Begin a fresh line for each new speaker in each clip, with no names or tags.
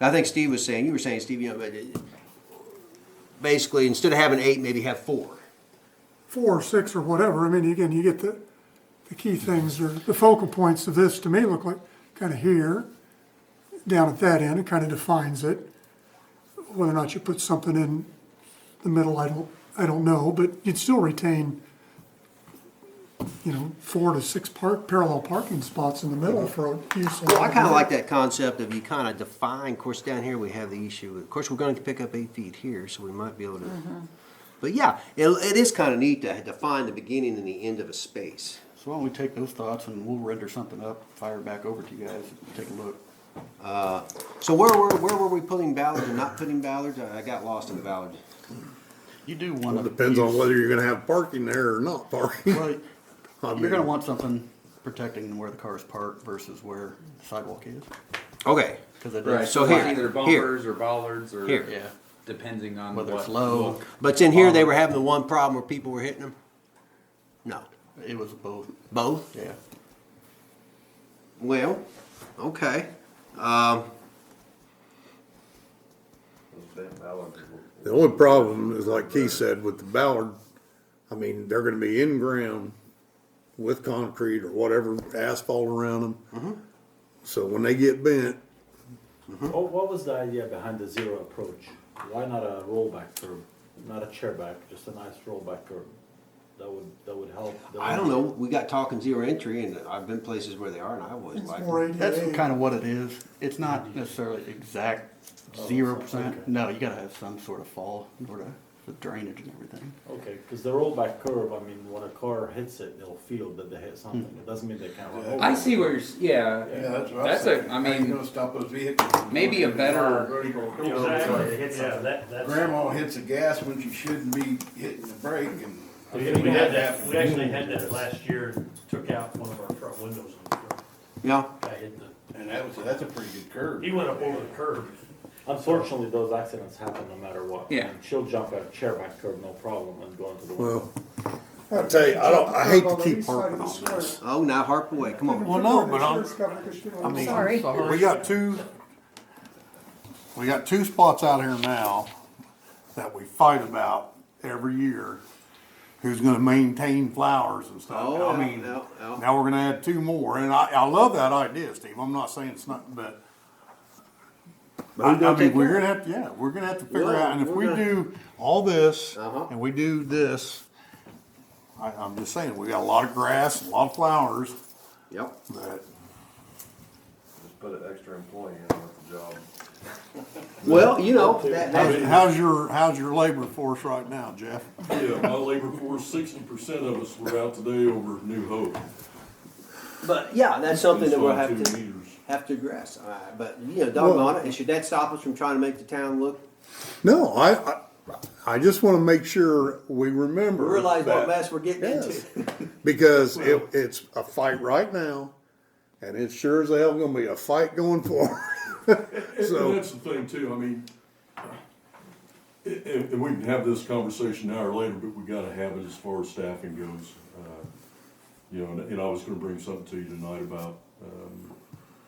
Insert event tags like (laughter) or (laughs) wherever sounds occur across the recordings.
And I think Steve was saying, you were saying, Steve, you know, but it- basically, instead of having eight, maybe have four.
four or six or whatever, I mean, again, you get the, the key things or the focal points of this to me look like kind of here, down at that end, it kind of defines it. Whether or not you put something in the middle, I don't, I don't know, but you'd still retain, you know, four to six park, parallel parking spots in the middle for use.
Well, I kind of like that concept of you kind of define, of course, down here we have the issue, of course, we're going to pick up eight feet here, so we might be able to. But yeah, it, it is kind of neat to define the beginning and the end of a space.
So why don't we take those thoughts and we'll render something up, fire it back over to you guys, and take a look.
So where were, where were we putting Ballard and not putting Ballard? Uh, I got lost in Ballard.
You do want
Well,
to.
it depends on whether you're gonna have parking there or not parking. (laughs)
Well,
I
you're gonna
mean-
want something protecting where the car is parked versus where the sidewalk is,
Okay,
because it
Right,
does.
so
so
here,
either
here.
bumpers or bollards or
Here.
Yeah,
depending on
whether
what
it's low,
look.
but then here they were having the one problem where people were hitting them? No,
it was both,
both?
yeah.
Well, okay.
The only problem is like Keith said with the Ballard, I mean, they're gonna be in ground with concrete or whatever asphalt around
Mm-hmm.
them. So when they get bent,
What, Oh, what was the idea behind the zero approach? Why not a rollback curb, not a chairback, just a nice rollback curb? That would, that would help. the-
I don't know, we got talking zero entry and I've been places where they are and I always like.
Four eighty-eight.
That's kind of what it is. It's not necessarily exact
Oh,
zero percent. No, you gotta have some sort of fall, in order for drainage and everything.
Okay, because the rollback curb, I mean, when a car hits it, they'll feel that they hit something. It doesn't mean they can't run over.
I see where you're, s- yeah.
Yeah, that's what I
That's
said.
a, I
How you
mean,
gonna stop those vehicles. from
maybe a
going through the
better-
vertical curve?
Yeah, that,
Grandma hits the gas when she shouldn't be hitting the brake and.
We had that, we actually had that last year, took out one of our front windows. on the truck.
Yeah,
Guy hit the,
And that was, that's a pretty good curve.
he went up over the curb.
Unfortunately, those accidents happen no matter what.
Yeah.
And She'll jump at a chairback curb, no problem, and go into the.
well, I tell you, I don't, I hate to keep harping on this.
oh, now harp away, come
(laughs)
on.
Well, no, but I'm,
I mean,
Sorry.
sorry.
sorry.
We
We
got
two, we got two spots out here now that we fight about every year. Who's gonna maintain flowers and stuff.
Oh,
I mean,
yeah, yeah, yeah.
now we're gonna add two more, and I, I love that idea, Steve. I'm not saying it's not, but. I, I mean, we're gonna have, to yeah, we're gonna have to figure
Yeah,
out, and if
we're
we
gonna-
do all this,
Uh-huh.
and we do this, I, I'm just saying, we got a lot of grass, a lot of flowers,
Yep.
but
Just put an extra employee in with the job.
Well, you know, that, that,
How's, how's your, how's your labor force right now, Jeff?
Yeah, my labor force, sixty percent of us were out today over New Hope.
But yeah, that's something that we'll have to have to address. Uh, but you know, doggone it, and should that stop us from trying to make the town look?
No, I, I, I just wanna make sure we remember.
Realize what
that-
mess we're getting into.
Yes. (laughs) Because it, it's a fight right now, and it's sure as hell gonna be a fight going forward. (laughs)
And
So,
that's the thing too, I mean, and, and we can have this conversation now or later, but we gotta have it as far as staffing goes. Uh, You know, and, and I was gonna bring something to you tonight about, um,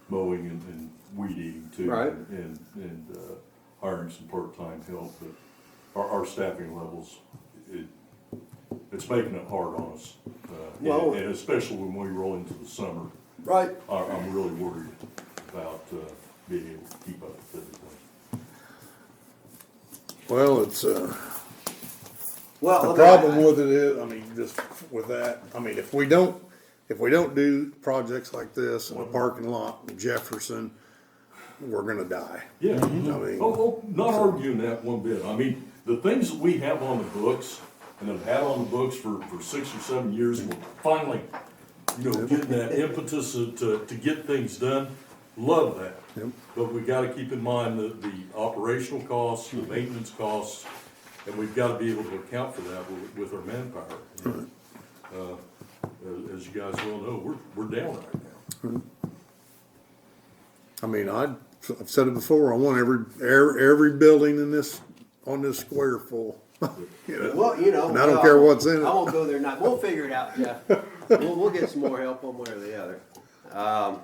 mowing and, and weed eating too.
Right.
And, and, uh, hiring some part-time help, but our, our staffing levels, it, it's making it hard on us. uh, and-
Well-
And especially when we roll into the summer,
right.
I, I'm really worried about, uh, being able to keep up with everything.
well, it's, uh,
Well,
the
look, I-
problem with it is, I mean, just with that, I mean, if we don't, if we don't do projects like this in a
Mm-hmm.
parking lot in Jefferson, we're gonna die.
Yeah,
mean-
oh, oh, not arguing that one bit. I mean, the things that we have on the books and have had on the books for, for six or seven years, we're finally, you know, getting that impetus to, to, to get things done. Love that.
Yep.
But we gotta keep in mind the, the operational costs, the maintenance costs, and we've gotta be able to account for that with, with our manpower. And, uh, As, as you guys well know, we're, we're down right now.
I mean, I, I've said it before, I want every, every, every building in this, on this square full. You know?
Well, you know,
And I don't care what's in it.
I won't
(laughs)
go there. Not. We'll figure it out, Jeff. we'll, we'll get some more help one way or the other. Um,